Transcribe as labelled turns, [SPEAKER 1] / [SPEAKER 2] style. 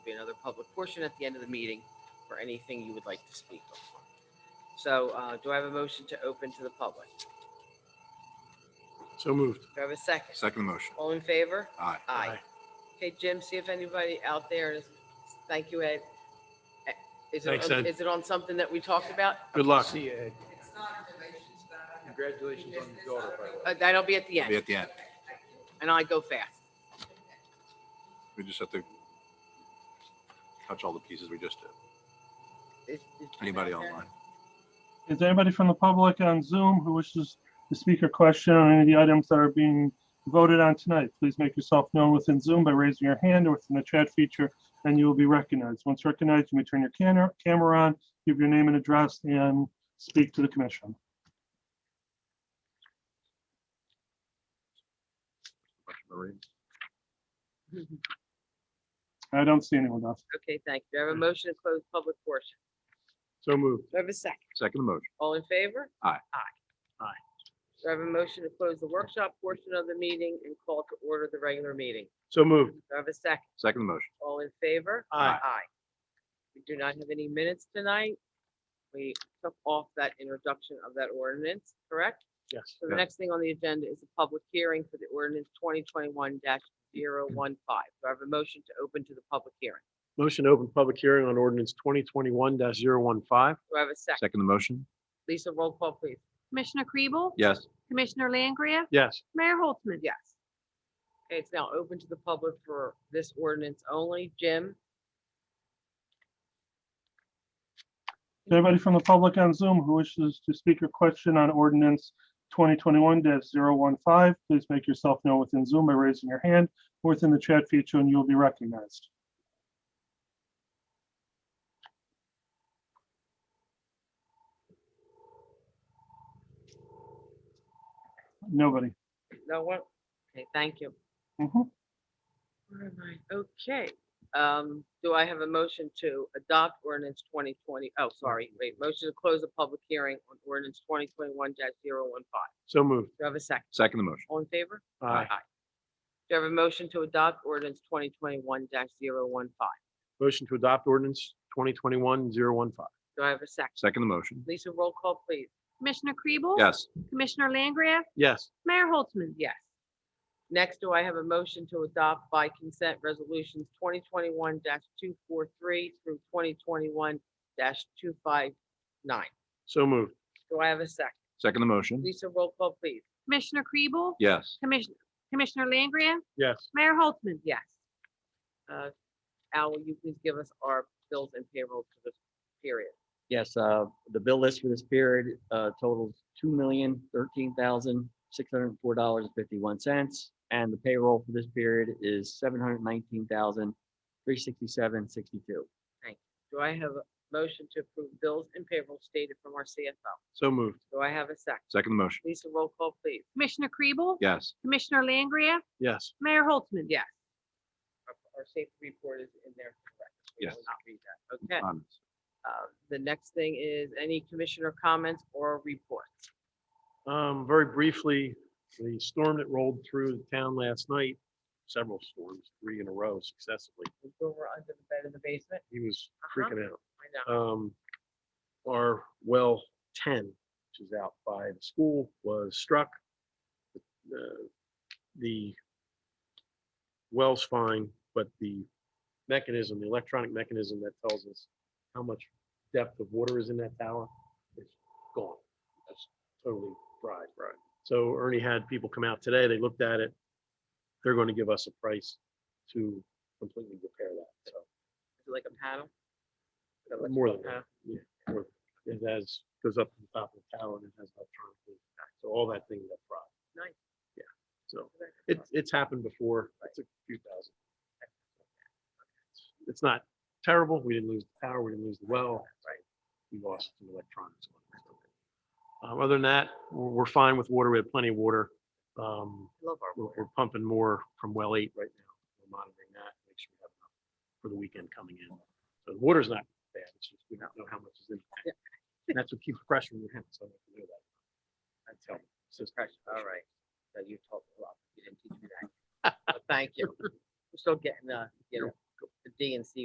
[SPEAKER 1] public portion at the end of the meeting for anything you would like to speak on. So uh, do I have a motion to open to the public?
[SPEAKER 2] So moved.
[SPEAKER 1] Do I have a second?
[SPEAKER 3] Second motion.
[SPEAKER 1] All in favor?
[SPEAKER 3] Aye.
[SPEAKER 1] Aye. Okay, Jim, see if anybody out there is, thank you, Ed. Eh, Is it,
[SPEAKER 2] Thanks,
[SPEAKER 1] on-
[SPEAKER 2] Ed.
[SPEAKER 1] is it on something that we talked about?
[SPEAKER 2] Good luck.
[SPEAKER 4] It's not in relation to that.
[SPEAKER 5] Congratulations on your daughter, by the way.
[SPEAKER 1] Uh, That'll be at the
[SPEAKER 3] It'll Be
[SPEAKER 1] end,
[SPEAKER 3] at the end.
[SPEAKER 1] and I go fast.
[SPEAKER 3] We just have to touch all the pieces we just did.
[SPEAKER 1] Is- is Jim
[SPEAKER 3] Anybody
[SPEAKER 1] out there?
[SPEAKER 3] online?
[SPEAKER 6] Is there anybody from the public on Zoom who wishes to speak or question on any of the items that are being voted on tonight? Please make yourself known within Zoom by raising your hand or within the chat feature, and you will be recognized. Once recognized, you may turn your can- camera on, give your name and address, and speak to the commission.
[SPEAKER 3] Marie?
[SPEAKER 6] I don't see anyone else.
[SPEAKER 1] Okay, thank you. Do I
[SPEAKER 3] Mm-hmm.
[SPEAKER 1] have a motion to close public portion?
[SPEAKER 2] So moved.
[SPEAKER 1] Do I have a second?
[SPEAKER 3] Second motion.
[SPEAKER 1] All in favor?
[SPEAKER 3] Aye.
[SPEAKER 1] Aye.
[SPEAKER 2] Aye.
[SPEAKER 1] Do I have a motion to close the workshop portion of the meeting and call to order the regular meeting?
[SPEAKER 2] So moved.
[SPEAKER 1] Do I have a second?
[SPEAKER 3] Second motion.
[SPEAKER 1] All in favor?
[SPEAKER 2] Aye.
[SPEAKER 1] Aye. We do not have any minutes tonight. We took off that introduction of that ordinance, correct?
[SPEAKER 2] Yes.
[SPEAKER 1] So the
[SPEAKER 3] Yes.
[SPEAKER 1] next thing on the agenda is a public hearing for the ordinance twenty twenty-one 15 Do I have a motion to open to the public hearing?
[SPEAKER 2] Motion to open public hearing on ordinance twenty twenty-one 15
[SPEAKER 1] Do I have a second?
[SPEAKER 3] Second motion.
[SPEAKER 1] Lisa, roll call, please.
[SPEAKER 7] Commissioner Kribel?
[SPEAKER 3] Yes.
[SPEAKER 7] Commissioner Langria?
[SPEAKER 2] Yes.
[SPEAKER 7] Mayor Holtzman?
[SPEAKER 1] Yes. Okay, it's now open to the public for this ordinance only. Jim?
[SPEAKER 6] Is there anybody from the public on Zoom who wishes to speak or question on ordinance twenty twenty-one 15 Please make yourself known within Zoom by raising your hand or within the chat feature, and you will be recognized. Nobody.
[SPEAKER 1] No one? Okay, thank you.
[SPEAKER 6] Mhm.
[SPEAKER 1] Where am I? Okay, um, do I have a motion to adopt ordinance 2020? Oh, sorry, wait, motion to close the public hearing on ordinance twenty twenty-one 15
[SPEAKER 2] So moved.
[SPEAKER 1] Do I have a second?
[SPEAKER 3] Second motion.
[SPEAKER 1] All in favor?
[SPEAKER 2] Aye.
[SPEAKER 1] Do I have a motion to adopt ordinance twenty twenty-one 15
[SPEAKER 2] Motion to adopt ordinance 2021-015.
[SPEAKER 1] Do I have a second?
[SPEAKER 3] Second motion.
[SPEAKER 1] Lisa, roll call, please.
[SPEAKER 7] Commissioner Kribel?
[SPEAKER 3] Yes.
[SPEAKER 7] Commissioner Langria?
[SPEAKER 2] Yes.
[SPEAKER 7] Mayor Holtzman?
[SPEAKER 1] Yes. Next, do I have a motion to adopt by consent resolutions twenty twenty-one two four three through twenty twenty-one two five nine?
[SPEAKER 2] So moved.
[SPEAKER 1] Do I have a second?
[SPEAKER 3] Second motion.
[SPEAKER 1] Lisa, roll call, please.
[SPEAKER 7] Commissioner Kribel?
[SPEAKER 3] Yes.
[SPEAKER 7] Commissioner, Commissioner Langria?
[SPEAKER 2] Yes.
[SPEAKER 7] Mayor Holtzman?
[SPEAKER 1] Yes. Uh, Al, will you please give us our bills and payroll for this period?
[SPEAKER 8] Yes, uh, the bill list for this period uh, totals two million thirteen thousand six hundred and four dollars and fifty-one cents. And the payroll for this period is seven hundred nineteen thousand three sixty-seven sixty-two.
[SPEAKER 1] Do I have a motion to approve bills and payroll stated from our CFO?
[SPEAKER 2] So moved.
[SPEAKER 1] Do I have a second?
[SPEAKER 3] Second motion.
[SPEAKER 1] Lisa, roll call, please.
[SPEAKER 7] Commissioner Kribel?
[SPEAKER 3] Yes.
[SPEAKER 7] Commissioner Langria?
[SPEAKER 2] Yes.
[SPEAKER 7] Mayor Holtzman?
[SPEAKER 1] Yes. Our- Our safety report is in there. correct? We will
[SPEAKER 3] Yes.
[SPEAKER 1] Not read that. Okay.
[SPEAKER 3] Comments?
[SPEAKER 1] Uh, The next thing is any commissioner comments or reports.
[SPEAKER 2] Um, very briefly, the storm that rolled through the town last night, several storms, three in a row successively.
[SPEAKER 1] We go over under the bed in the basement.
[SPEAKER 2] He was
[SPEAKER 1] Uh-huh.
[SPEAKER 2] freaking out.
[SPEAKER 1] I know.
[SPEAKER 2] um, our well ten, which is out by the school, was struck. The- The well's fine, but the mechanism, the electronic mechanism that tells us how much depth of water is in that tower is gone. That's totally fried. Right. So Ernie had people come out today, they looked at it. They're going to give us a price to completely repair that, so.
[SPEAKER 1] Is it like a panel?
[SPEAKER 2] Uh, More than
[SPEAKER 1] panel?
[SPEAKER 2] that, yeah. or It has, goes up to the top of the tower and it has electronic feedback. So all that thing got fried.
[SPEAKER 1] Nice.
[SPEAKER 2] Yeah, so
[SPEAKER 1] Okay.
[SPEAKER 2] it's, it's happened before. It's a few thousand. It's- It's not terrible. We didn't lose the tower. We didn't lose the well. Right. We lost some electronics. on it. Um, Other than that, we're, we're fine with water. We have plenty of water. Um,
[SPEAKER 1] I Love our
[SPEAKER 2] We're,
[SPEAKER 1] board.
[SPEAKER 2] we're pumping more from well eight right now. We're monitoring that, make sure we have enough for the weekend coming in. So the water's not bad, it's just we don't know how much is in. the tank. And that's what keeps pressure in your hands, so I have to do that. That's how. it's just-
[SPEAKER 1] All right. So you talked a lot. You didn't teach me that. But Thank you. We're still getting, uh, you know, the D and C